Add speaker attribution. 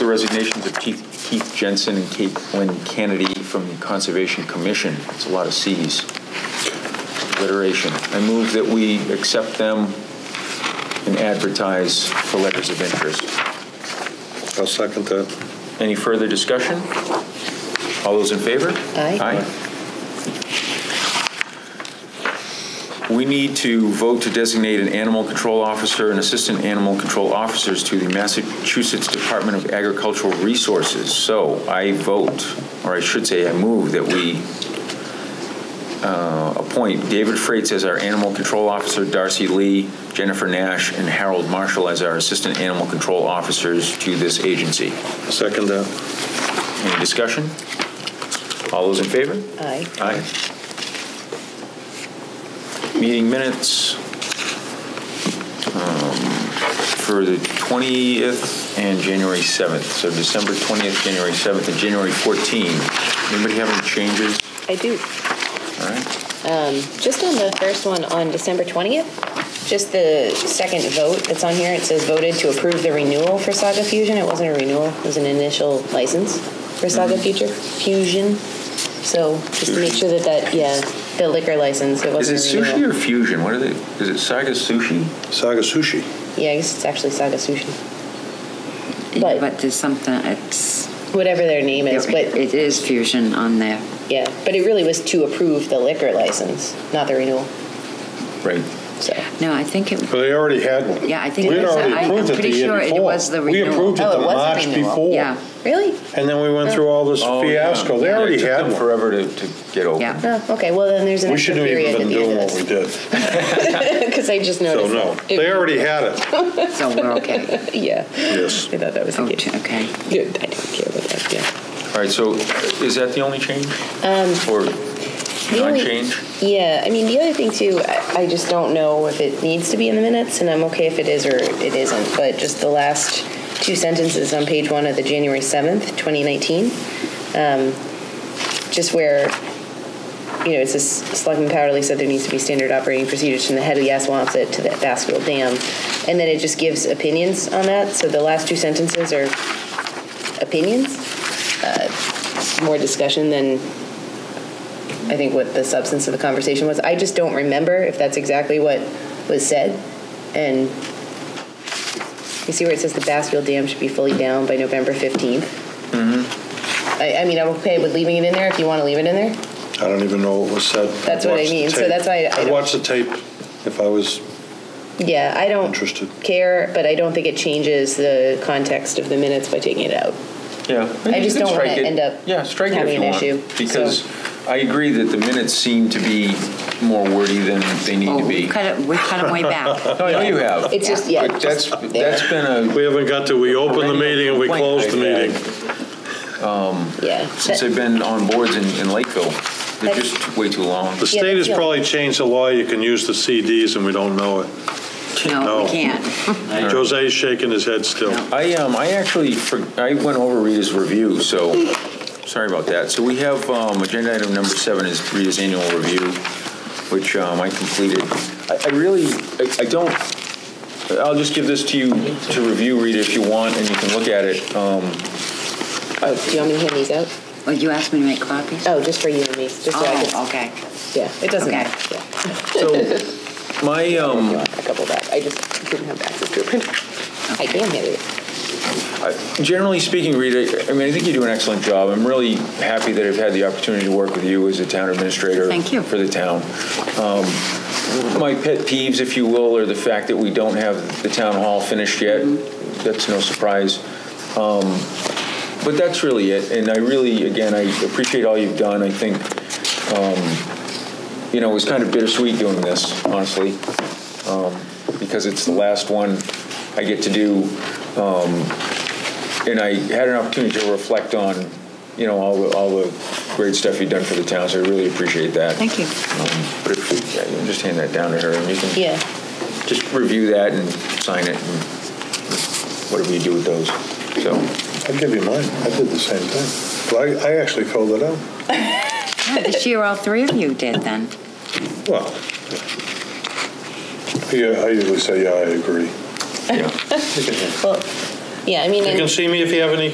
Speaker 1: The resignations of Keith Keith Jensen and Kate Lynn Kennedy from the Conservation Commission. It's a lot of Cs. Alliteration. I move that we accept them and advertise for letters of interest.
Speaker 2: I'll second that.
Speaker 1: Any further discussion? All those in favor?
Speaker 3: Aye.
Speaker 1: Aye. We need to vote to designate an animal control officer and assistant animal control officers to the Massachusetts Department of Agricultural Resources. So I vote, or I should say, I move that we uh, appoint David Freites as our animal control officer, Darcy Lee, Jennifer Nash, and Harold Marshall as our assistant animal control officers to this agency.
Speaker 2: Second that.
Speaker 1: Any discussion? All those in favor?
Speaker 3: Aye.
Speaker 1: Aye. Meeting minutes um, for the 20th and January 7th. So December 20th, January 7th, and January 14th. Anybody have any changes?
Speaker 3: I do.
Speaker 1: All right.
Speaker 3: Just on the first one on December 20th, just the second vote that's on here, it says voted to approve the renewal for Saga Fusion. It wasn't a renewal, it was an initial license for Saga
Speaker 2: Mm-hmm.
Speaker 3: Future Fusion. So just to make sure that that, yeah, the liquor license, it
Speaker 1: Is it
Speaker 3: wasn't
Speaker 2: uh,
Speaker 3: a
Speaker 1: sushi
Speaker 3: renewal.
Speaker 1: or fusion? What are they, is it Saga Sushi?
Speaker 2: Saga Sushi.
Speaker 3: Yeah, I guess it's actually Saga Sushi, But-
Speaker 4: But, there's something, it's,
Speaker 3: whatever their name is, but
Speaker 4: it is fusion on there.
Speaker 3: yeah, but it really was to approve the liquor license, not the renewal,
Speaker 1: Right.
Speaker 3: so.
Speaker 4: No, I think it,
Speaker 2: Well, they already had one.
Speaker 4: Yeah, I think
Speaker 2: We
Speaker 4: it
Speaker 2: had
Speaker 4: was-
Speaker 2: already
Speaker 4: I-
Speaker 2: approved
Speaker 4: I'm
Speaker 2: it the
Speaker 4: pretty
Speaker 2: year
Speaker 4: sure it
Speaker 2: before.
Speaker 4: was the
Speaker 2: We
Speaker 4: renewal.
Speaker 2: approved it
Speaker 3: Oh, it
Speaker 2: the
Speaker 3: was the
Speaker 2: March
Speaker 3: renewal.
Speaker 2: before.
Speaker 4: yeah,
Speaker 3: Really?
Speaker 2: And then we went through all this
Speaker 1: Oh, yeah.
Speaker 2: fiasco. They
Speaker 1: Yeah, it
Speaker 2: already
Speaker 1: took
Speaker 2: had
Speaker 1: them
Speaker 2: one.
Speaker 1: Forever to, to get open.
Speaker 4: yeah.
Speaker 3: Oh, okay, well then there's an
Speaker 2: We
Speaker 3: extra
Speaker 2: shouldn't have even
Speaker 3: period at
Speaker 2: been
Speaker 3: the end
Speaker 2: doing
Speaker 3: of
Speaker 2: what we
Speaker 3: this.
Speaker 2: did.
Speaker 3: Because I just
Speaker 2: So,
Speaker 3: noticed.
Speaker 2: no,
Speaker 3: that. It-
Speaker 2: they already had it.
Speaker 4: So we're okay.
Speaker 3: Yeah.
Speaker 2: Yes.
Speaker 3: I thought that was
Speaker 4: Oh,
Speaker 3: the case.
Speaker 4: t- okay.
Speaker 3: Yeah, I don't care about that, yeah.
Speaker 1: All right, so is that the only change? Or
Speaker 3: only-
Speaker 1: non-change?
Speaker 3: Yeah, I mean, the other thing too, I, I just don't know if it needs to be in the minutes, and I'm okay if it is or it isn't, but just the last two sentences on page one of the January 7th, 2019, um, just where, you know, it says Selectman Powderly said there needs to be standard operating procedures from the head of the Assawamsett to the Bascule Dam, and then it just gives opinions on that, so the last two sentences are opinions, uh, more discussion than I think what the substance of the conversation was. I just don't remember if that's exactly what was said. And you see where it says the Bassfield Dam should be fully down by November 15th? Mm-hmm.
Speaker 4: Mm-hmm.
Speaker 3: I, I mean, I'm okay with leaving it in there if you want to leave it in there.
Speaker 2: I don't even know what was said.
Speaker 3: That's what I
Speaker 2: watched the
Speaker 3: mean, so
Speaker 2: tape.
Speaker 3: that's why I- I
Speaker 2: I'd
Speaker 3: don't-
Speaker 2: watch the tape if I was
Speaker 3: Yeah, I don't
Speaker 2: interested.
Speaker 3: care, but I don't think it changes the context of the minutes by taking it out.
Speaker 1: Yeah.
Speaker 3: I just
Speaker 1: You can
Speaker 3: don't wanna
Speaker 1: strike it.
Speaker 3: end up
Speaker 1: Yeah, strike it if
Speaker 3: having
Speaker 1: you
Speaker 3: an
Speaker 1: want,
Speaker 3: issue,
Speaker 1: Because
Speaker 3: so.
Speaker 1: I agree that the minutes seem to be more wordy than they need
Speaker 4: Oh,
Speaker 1: to
Speaker 4: we
Speaker 1: be.
Speaker 4: cut it, we cut it way back.
Speaker 1: No, I know you have.
Speaker 3: It's just, yeah.
Speaker 1: But that's,
Speaker 3: just there.
Speaker 1: that's been a.
Speaker 2: We haven't got to, we opened
Speaker 1: perennial
Speaker 2: the meeting and we
Speaker 1: complaint
Speaker 2: closed
Speaker 1: I've
Speaker 2: the
Speaker 1: had
Speaker 2: meeting.
Speaker 3: yeah.
Speaker 1: Since I've been on boards in, in Lakeville. They're
Speaker 3: That's-
Speaker 1: just way too long.
Speaker 2: The state has
Speaker 3: that's the-
Speaker 2: probably changed the law, you can use the CDs and we don't know it.
Speaker 4: No,
Speaker 2: No.
Speaker 4: we can't.
Speaker 2: Jose's shaking his head still.
Speaker 4: No.
Speaker 1: I, um, I actually, for- I went over Rita's review, so, sorry about that. So we have, um, agenda item number seven is Rita's annual review, which, um, I completed. I, I really, I, I don't, I'll just give this to you to review, Rita, if you want, and you can look at it. Um,
Speaker 3: Oh, do you want me to hand these out?
Speaker 4: Well, you asked me to make copies?
Speaker 3: Oh, just for you and me. Just so I
Speaker 4: Oh,
Speaker 3: can,
Speaker 4: okay.
Speaker 3: yeah, it doesn't
Speaker 4: okay.
Speaker 3: matter. Yeah.
Speaker 1: so, my, um,
Speaker 3: You want a couple back? I just didn't have access to a printer. I can hand it.
Speaker 1: Generally speaking, Rita, I mean, I think you do an excellent job. I'm really happy that I've had the opportunity to work with you as a town administrator.
Speaker 4: Thank you.
Speaker 1: For the town. Um, My pet peeves, if you will, are the fact that we don't have the town hall finished yet.
Speaker 4: Mm-hmm.
Speaker 1: That's no surprise. Um, But that's really it. And I really, again, I appreciate all you've done. I think, um, you know, it was kind of bittersweet doing this, honestly, um, because it's the last one I get to do um, and I had an opportunity to reflect on, you know, all the, all the great stuff you've done for the town, so I really appreciate that.
Speaker 4: Thank you.
Speaker 1: Um, But if, yeah, you can just hand that down to her, and you can
Speaker 3: Yeah.
Speaker 1: just review that and sign it, and whatever you do with those, so.
Speaker 2: I'll give you mine, I did the same thing. But I, I actually filled it out.
Speaker 4: Yeah, This year, all three of you did then.
Speaker 2: Well, yeah, I usually say, yeah, I agree.
Speaker 1: yeah.
Speaker 3: Well, yeah, I mean,
Speaker 2: You
Speaker 3: and-
Speaker 2: can see me if you have any